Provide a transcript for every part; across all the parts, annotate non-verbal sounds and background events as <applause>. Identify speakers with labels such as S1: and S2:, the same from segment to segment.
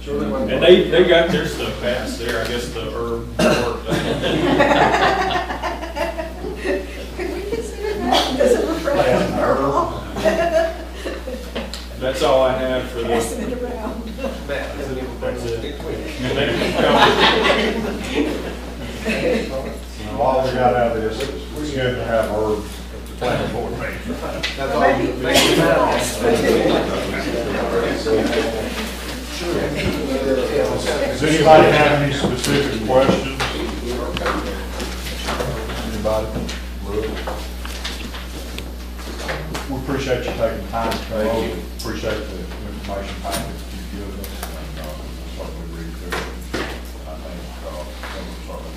S1: Surely one.
S2: And they, they got their stuff passed there, I guess the herb worked.
S3: <laughs> Could we consider that as a referendum or all?
S2: That's all I have for
S3: Pass
S2: this.
S3: it around.
S1: Matt, doesn't even bring us big twig.
S4: All we got out of this is, we had to have our planning board meeting.
S1: That's all you
S3: Maybe, maybe less, but-
S4: Does anybody have any specific questions? Anybody? We appreciate you taking time to come over, appreciate the information package you give us, and, uh, certainly read through it. I think, uh, that was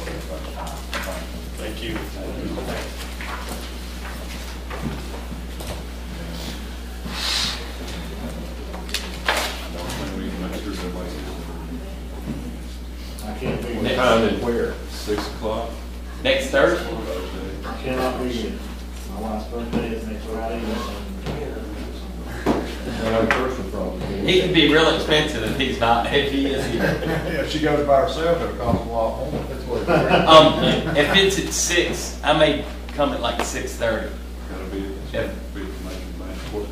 S4: certainly worth our time. Thank you.
S2: Thank you.
S5: I can't be,
S6: Next.
S5: here.
S6: Time
S2: and where?
S6: Six o'clock. Next Thursday?
S5: cannot be here. My wife's birthday is next Friday. and
S6: He can be real expensive if he's not, if he is here.
S4: Yeah, if she goes by herself, it'll cost a lot more. That's what it's worth.
S6: <laughs> Um, if it's at six, I may come at like six thirty.
S7: Gotta be,
S6: Yeah.
S7: be making my corporate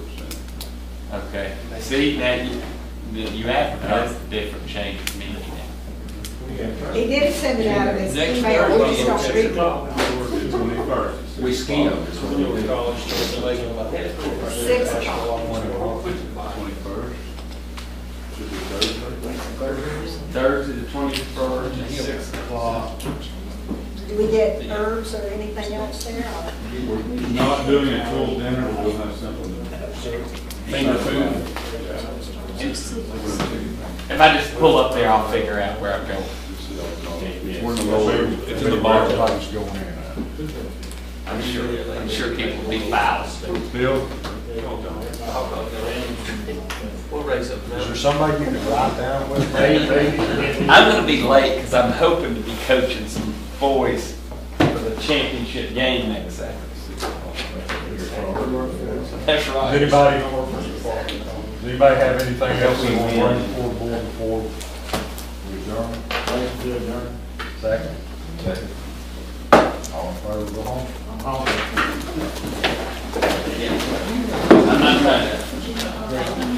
S7: center.
S6: Okay. See, now you, you advertise the different change of meeting now.
S3: He did send it out of his
S6: Next
S3: email, we just don't
S6: Thursday.
S3: read it.
S7: Twenty-first.
S6: We ski on
S2: It's a little college store.
S3: Six o'clock.
S7: Twenty-first. Should be Thursday.
S6: Thursday, the twenty-first, at six o'clock.
S3: Do we get herbs or anything else there? or-
S7: We're not doing a full dinner, we'll have something.
S6: Finger food. If I just pull up there, I'll figure out where I'm going.
S4: <laughs>
S7: We're in the lower.
S2: It's in the bar.
S4: Everybody's going in and out.
S6: I'm sure, I'm sure people will be foul.
S7: Bill,
S4: Is there somebody you can write down with? Maybe.
S6: I'm gonna be late because I'm hoping to be coaching some boys for the championship game next Saturday. That's
S4: Does
S6: right.
S4: anybody, does anybody have anything else they want to bring before the board before we adjourn?
S5: Thanks to adjourn.
S4: Second? Second. All in favor, go home.
S5: I'm home.
S6: I'm not trying to.